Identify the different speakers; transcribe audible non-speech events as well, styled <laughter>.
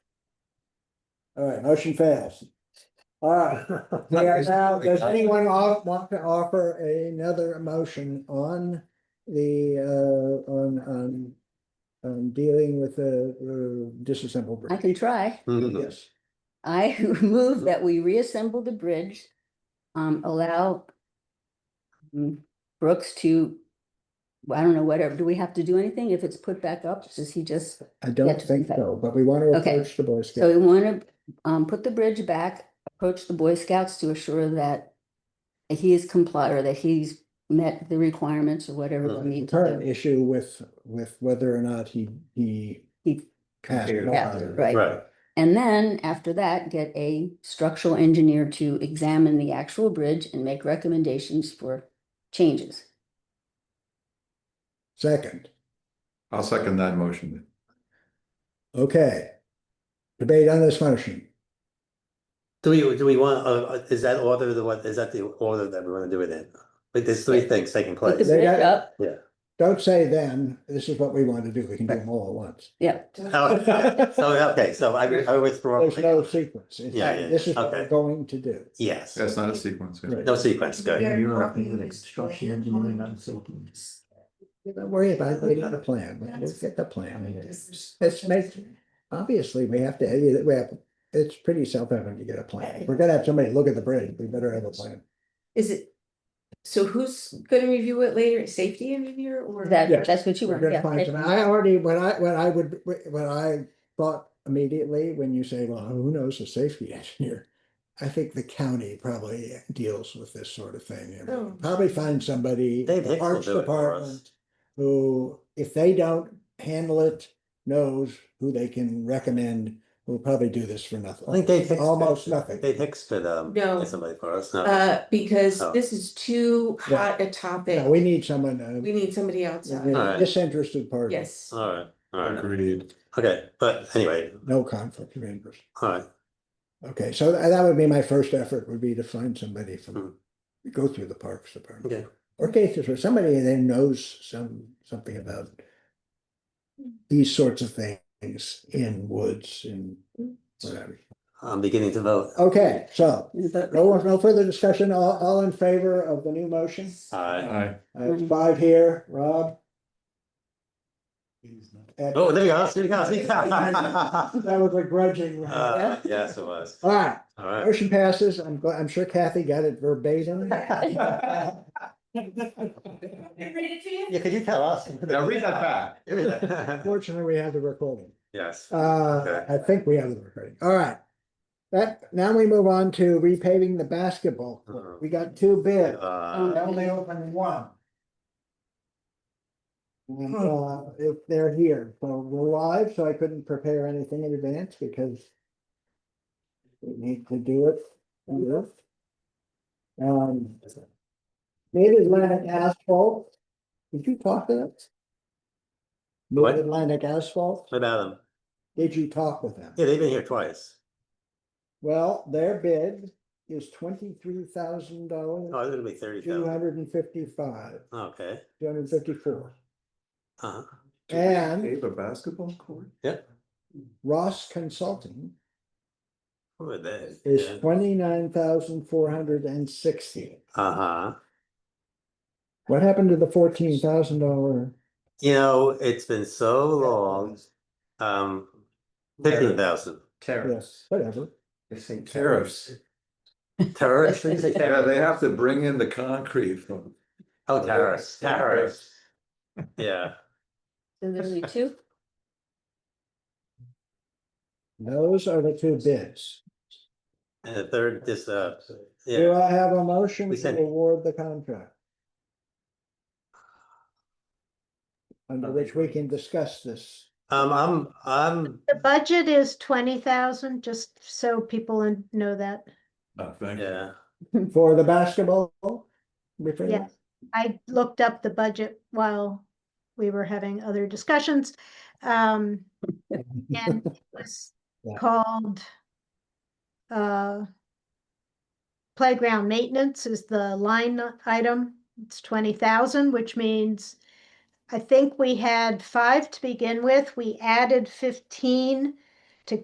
Speaker 1: All right, motion fails. All right, we are now, does anyone off, want to offer another motion on the, uh, on, on. On dealing with the uh, disassembled
Speaker 2: I
Speaker 1: bridge?
Speaker 2: can try.
Speaker 3: Mm-hmm.
Speaker 1: Yes,
Speaker 2: I <laughs> move that we reassemble the bridge, um, allow um, Brooks to, well, I don't know, whatever, do we have to do anything if it's put back up? Does he just,
Speaker 1: I
Speaker 2: Yeah,
Speaker 1: don't
Speaker 2: just
Speaker 1: think
Speaker 2: like-
Speaker 1: so, but we want to
Speaker 2: Okay.
Speaker 1: approach the Boy
Speaker 2: so
Speaker 1: Scouts.
Speaker 2: we want to, um, put the bridge back, approach the Boy Scouts to assure that he is complied or that he's met the requirements or whatever we need to
Speaker 1: Current
Speaker 2: do.
Speaker 1: issue with, with whether or not he, he.
Speaker 2: He-
Speaker 1: passed
Speaker 3: Yeah,
Speaker 1: bond.
Speaker 2: right.
Speaker 3: Right.
Speaker 2: And then after that, get a structural engineer to examine the actual bridge and make recommendations for changes.
Speaker 1: Second,
Speaker 3: I'll second that motion.
Speaker 1: okay. Debate on this motion.
Speaker 4: Do we, do we want, uh, uh, is that order the what, is that the order that we wanna do it in? Like, there's three things taking
Speaker 2: Put the
Speaker 4: place.
Speaker 1: They
Speaker 2: bridge
Speaker 1: got-
Speaker 2: up,
Speaker 1: Don't say then, this is what we want to do. We can do them all at once.
Speaker 2: yeah.
Speaker 1: <laughs>
Speaker 4: Oh, <laughs> So, okay, so I, I withdraw.
Speaker 1: There's no sequence. It's-
Speaker 4: Yeah, yeah,
Speaker 1: This is what we're
Speaker 4: okay.
Speaker 1: going to do.
Speaker 4: Yes,
Speaker 3: That's not a sequence. yeah.
Speaker 1: Right.
Speaker 4: no sequence, good.
Speaker 5: You're not being an instruction engineering, I'm thinking.
Speaker 1: Don't worry about getting the plan. We'll get the plan. It's make, obviously, we have to, we have, it's pretty self-evident to get a plan. If We're gonna have somebody look at the bridge. We better have a plan.
Speaker 6: Is it, so who's gonna review it later, safety engineer or?
Speaker 1: Yeah.
Speaker 2: That, that's what you
Speaker 1: We're
Speaker 2: want,
Speaker 1: gonna find some, I
Speaker 2: yeah.
Speaker 1: already, when I, when I would, when I thought immediately, when you say, well, who knows a safety <laughs> engineer? I think the county probably deals with this sort of thing. and
Speaker 6: Oh.
Speaker 1: Probably find somebody,
Speaker 4: Dave
Speaker 1: the
Speaker 4: Hicks will
Speaker 1: Parks
Speaker 4: do it for us.
Speaker 1: Department, who, if they don't handle it, knows who they can recommend, will probably do this for nothing.
Speaker 4: I think Dave Hicks.
Speaker 1: Almost nothing.
Speaker 4: Dave Hicks could, um,
Speaker 6: No.
Speaker 4: get somebody for us, no.
Speaker 6: Uh, because
Speaker 4: Oh.
Speaker 6: this is too
Speaker 1: Yeah.
Speaker 6: hot a topic,
Speaker 1: No, we need someone, uh,
Speaker 6: we need somebody else,
Speaker 1: you know,
Speaker 4: Alright.
Speaker 1: disinterested party,
Speaker 6: yes.
Speaker 4: All right, all right,
Speaker 3: Agreed.
Speaker 4: okay, but anyway,
Speaker 1: no conflict of interest.
Speaker 4: all right,
Speaker 1: Okay, so tha- that would be my first effort would be to find somebody
Speaker 4: Hmm.
Speaker 1: from, go through the Parks Department.
Speaker 4: Okay.
Speaker 1: Or cases where somebody then knows some, something about these sorts of things in woods and whatever.
Speaker 4: I'm beginning to vote.
Speaker 1: Okay, so
Speaker 2: But-
Speaker 1: no, no further discussion, all, all in favor of the new motion?
Speaker 4: Aye.
Speaker 3: Aye.
Speaker 1: I
Speaker 4: Mm-hmm.
Speaker 1: have five here, Rob? Ed?
Speaker 4: Oh, there you go, there you go, there you
Speaker 3: <laughs>
Speaker 4: go.
Speaker 1: That was a grudging. All
Speaker 4: <laughs> Uh, yes, it was, all
Speaker 1: right,
Speaker 3: <laughs>
Speaker 4: right.
Speaker 1: motion passes. I'm glad, I'm sure Kathy got it verbatim.
Speaker 4: <laughs> Yeah, could you tell us?
Speaker 3: Now read that
Speaker 4: <laughs>
Speaker 3: back.
Speaker 4: Read that.
Speaker 1: Fortunately, we have the recording.
Speaker 4: Yes.
Speaker 1: Uh,
Speaker 4: Okay.
Speaker 1: I think we have the recording. All right. That, now we move on to repaving the basketball. court.
Speaker 4: Uh-huh.
Speaker 1: We got two bids.
Speaker 4: Uh,
Speaker 2: um,
Speaker 1: I Only opened one. And, uh, if they're here, so we're live, so I couldn't prepare anything in advance because we need to do it. on this. Um, Mid Atlantic Asphalt. Did you talk to them?
Speaker 4: What?
Speaker 1: Mid Atlantic Asphalt?
Speaker 4: what about them?
Speaker 1: Did you talk with them?
Speaker 4: Yeah, they've been here twice.
Speaker 1: Well, their bid is twenty-three thousand
Speaker 4: Oh,
Speaker 1: dollars,
Speaker 4: it's gonna be thirty
Speaker 1: two
Speaker 4: thousand.
Speaker 1: hundred and fifty-five,
Speaker 4: Okay.
Speaker 1: two hundred and fifty-four.
Speaker 4: Uh-huh.
Speaker 3: Do we
Speaker 1: And-
Speaker 3: Pave a basketball court?
Speaker 1: Ross Consulting
Speaker 4: Who are they?
Speaker 1: is twenty-nine thousand four hundred and sixty.
Speaker 4: Uh-huh.
Speaker 1: What happened to the fourteen thousand dollar?
Speaker 4: You know, it's been so long, um, fifteen thousand.
Speaker 1: Yes, whatever.
Speaker 3: Tariffs.
Speaker 4: Terrorists?
Speaker 3: Yeah, they have to bring in the concrete from.
Speaker 4: Oh, terrorists, terrorists, <laughs> yeah.
Speaker 2: So there's only two?
Speaker 1: Those are the two bids.
Speaker 4: And the third, this, uh,
Speaker 1: Do
Speaker 4: yeah,
Speaker 1: I have a motion
Speaker 4: We
Speaker 1: to
Speaker 4: sent-
Speaker 1: award the contract? Under which we can discuss this.
Speaker 4: um, I'm, I'm,
Speaker 7: The budget is twenty thousand, just so people in- know that.
Speaker 3: Oh, thank you.
Speaker 4: yeah.
Speaker 1: For the basketball? we figured?
Speaker 7: Yes. I looked up the budget while we were having other discussions. Um, and it was
Speaker 1: Yeah.
Speaker 7: called uh, playground maintenance is the line item. It's twenty thousand, which means I think we had five to begin with. We added fifteen